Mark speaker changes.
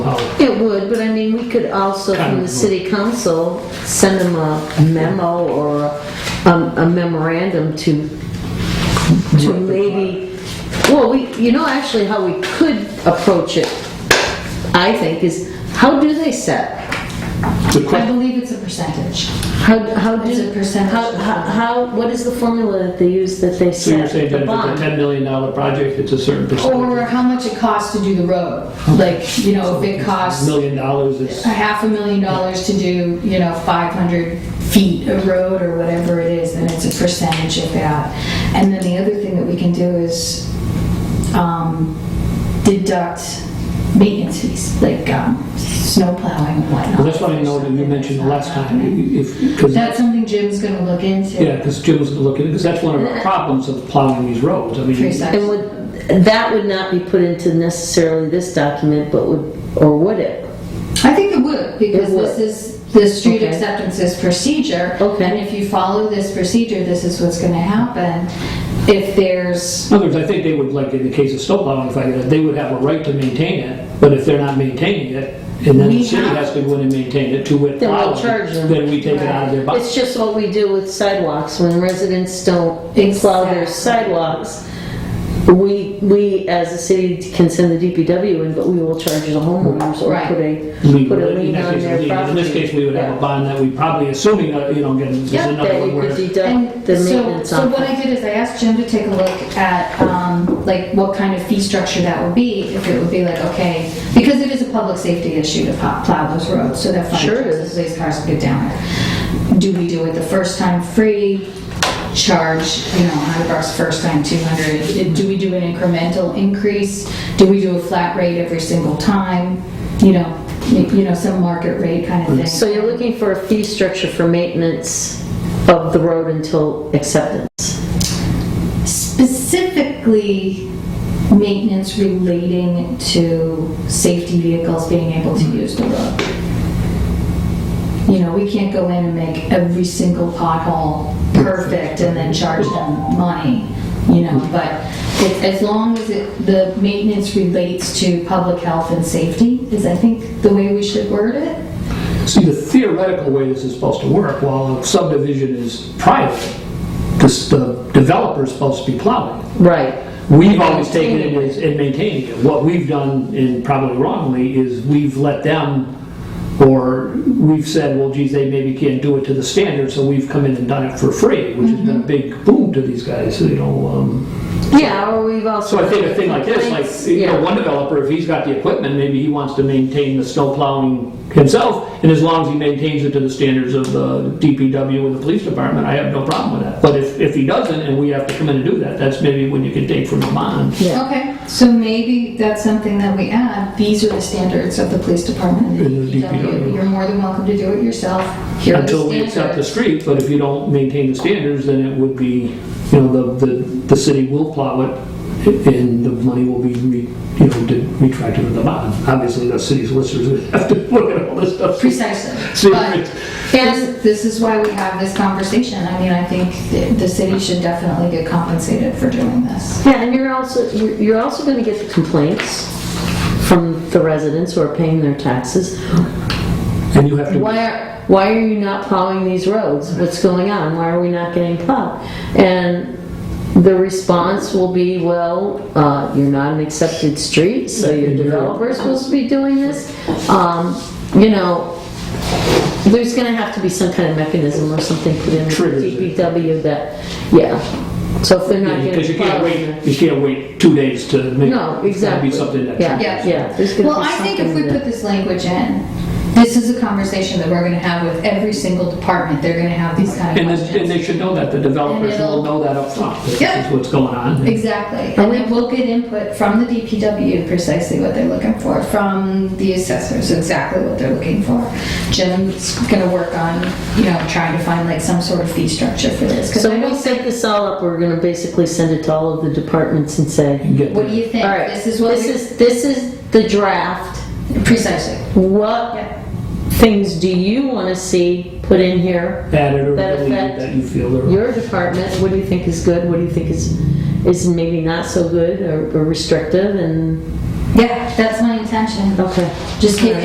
Speaker 1: could also, from the city council, send them a memo or um, a memorandum to, to maybe, well, we, you know, actually how we could approach it, I think, is how do they set?
Speaker 2: The
Speaker 3: I
Speaker 2: que-
Speaker 3: believe it's a percentage.
Speaker 1: How, how do?
Speaker 3: It's a percentage.
Speaker 1: How, how- how, what is the formula that they use that they
Speaker 2: So you're
Speaker 1: set?
Speaker 2: saying that
Speaker 1: the
Speaker 2: if
Speaker 1: bond?
Speaker 2: it's a $10 million project, it's a certain
Speaker 3: Or
Speaker 2: percentage?
Speaker 3: how much it costs to do the road. Like, you know, if it costs
Speaker 2: Million dollars
Speaker 3: a
Speaker 2: is,
Speaker 3: half a million dollars to do, you know, 500 feet of road or whatever it is, then it's a percentage of that. And then the other thing that we can do is um, deduct maintenance fees, like um, snow plowing and whatnot.
Speaker 2: well, that's what I know that you mentioned the last time, if, because,
Speaker 3: That's something Jim's going to look into.
Speaker 2: yeah, because Jim was looking, because that's one of the problems of plowing these roads. I mean,
Speaker 3: Precisely.
Speaker 1: And would, that would not be put into necessarily this document, but would, or would it?
Speaker 3: I think it would, because
Speaker 1: It would.
Speaker 3: this is the street
Speaker 1: Okay.
Speaker 3: acceptances procedure.
Speaker 1: Okay.
Speaker 3: And if you follow this procedure, this is what's gonna happen. If there's,
Speaker 2: In other words, I think they would, like in the case of snowplowing, if I could, they would have a right to maintain it, but if they're not maintaining it, and then the
Speaker 3: We
Speaker 2: city
Speaker 3: have-
Speaker 2: has to go in and maintain it to wit
Speaker 1: Then we'll
Speaker 2: plowing,
Speaker 1: charge them.
Speaker 2: then we take it out of their
Speaker 1: It's
Speaker 2: budget.
Speaker 1: just what we do with sidewalks, when residents don't plow their
Speaker 3: Exactly.
Speaker 1: sidewalks, we, we as a city can send the DPW in, but we will charge the homeowners or
Speaker 3: Right.
Speaker 1: put a,
Speaker 2: We
Speaker 1: put a
Speaker 2: would- in
Speaker 1: lien
Speaker 2: that
Speaker 1: on
Speaker 2: case,
Speaker 1: their
Speaker 2: we-
Speaker 1: property.
Speaker 2: In this case, we would have a bond that we probably, assuming, uh, you know, again, this is
Speaker 1: Yeah,
Speaker 2: another
Speaker 1: that we
Speaker 2: one where.
Speaker 1: could deduct
Speaker 3: and
Speaker 1: the
Speaker 3: so,
Speaker 1: maintenance
Speaker 3: so
Speaker 1: on.
Speaker 3: what I did is I asked Jim to take a look at, um, like, what kind of fee structure that would be, if it would be like, okay, because it is a public safety issue to plow plow those roads, so that fire
Speaker 1: Sure it
Speaker 3: trucks,
Speaker 1: is.
Speaker 3: and police cars will get down there. Do we do it the first time free, charge, you know, 100 bucks first time, 200? Do we do an incremental increase? Do we do a flat rate every single time? You know, you know, some market rate kind of thing.
Speaker 1: So you're looking for a fee structure for maintenance of the road until acceptance?
Speaker 3: specifically maintenance relating to safety vehicles being able to use the road. You know, we can't go in and make every single pothole perfect and then charge them money, you know, but it- as long as it, the maintenance relates to public health and safety is, I think, the way we should word it.
Speaker 2: See, the theoretical way this is supposed to work, while a subdivision is private, this- the developer's supposed to be plowing.
Speaker 1: Right.
Speaker 2: We've always taken it as- and maintained it. What we've done, and probably wrongly, is we've let them, or we've said, well, geez, they maybe can't do it to the standard, so we've come in and done it for free, which has been a big boom to these guys, you know. um,
Speaker 1: Yeah, or we've also.
Speaker 2: So I think a thing like this, like, you know,
Speaker 1: Yeah.
Speaker 2: one developer, if he's got the equipment, maybe he wants to maintain the snow plowing himself, and as long as he maintains it to the standards of the DPW and the police department, I have no problem with that. But if, if he doesn't, and we have to come in and do that, that's maybe when you can take from the bond.
Speaker 1: Yeah.
Speaker 3: Okay, so maybe that's something that we add, these are the standards of the police department and the DPW. You're more than welcome to do it yourself, here are the
Speaker 2: until we accept the
Speaker 3: standards.
Speaker 2: street, but if you don't maintain the standards, then it would be, you know, the, the, the city will plow it, and the money will be, re- you know, de- retracted to the bond. Obviously, the city solicitors would have to look at all this stuff. See
Speaker 3: Precisely,
Speaker 2: if
Speaker 3: but
Speaker 2: it's-
Speaker 1: And,
Speaker 3: this, this is why we have this conversation, I mean, I think th- the city should definitely get compensated for doing this.
Speaker 1: yeah, and you're also, you're you're also gonna get the complaints from the residents who are paying their taxes.
Speaker 2: And you have to,
Speaker 1: Why are, why are you not plowing these roads? What's going on? Why are we not getting plowed? And the response will be, well, uh, you're not an accepted street, so your developer's supposed to be doing this. Um, you know, there's gonna have to be some kind of mechanism or something put in with
Speaker 2: Triggers it.
Speaker 1: DPW that, yeah. So if they're not
Speaker 2: because
Speaker 1: getting
Speaker 2: you can't
Speaker 1: plowed.
Speaker 2: wait, you can't wait two days to make.
Speaker 1: No, exactly.
Speaker 2: It's gotta be something that.
Speaker 1: Yeah,
Speaker 3: Yeah.
Speaker 1: yeah. there's gonna
Speaker 3: Well,
Speaker 1: be
Speaker 3: I think if we
Speaker 1: something
Speaker 3: put this language in, this is a conversation that we're gonna have with every single department, they're gonna have these kind of
Speaker 2: And then, and
Speaker 3: questions.
Speaker 2: they should know that, the developers
Speaker 3: And it'll-
Speaker 2: will know that upfront, this
Speaker 3: Yeah.
Speaker 2: is what's going on.
Speaker 3: Exactly, and then we'll get input from the DPW, precisely what they're looking for, from the assessors, exactly what they're looking for. Jim's gonna work on, you know, trying to find like some sort of fee structure for this, 'cause
Speaker 1: So
Speaker 3: I
Speaker 1: when we
Speaker 3: don't
Speaker 1: set this all up, we're gonna basically send it to all of the departments and say,
Speaker 2: and get-
Speaker 3: what do you think?
Speaker 1: all right,
Speaker 3: This is what,
Speaker 1: this is, this is the draft.
Speaker 3: we- precisely,
Speaker 1: What
Speaker 3: yeah.
Speaker 1: things do you wanna see put in here?
Speaker 2: Add it or
Speaker 1: That
Speaker 2: delete it
Speaker 1: effect.
Speaker 2: that you feel. are-
Speaker 1: Your department, what do you think is good, what do you think is, is maybe not so good or or restrictive and,
Speaker 3: Yeah, that's my intention,
Speaker 1: okay.
Speaker 3: just get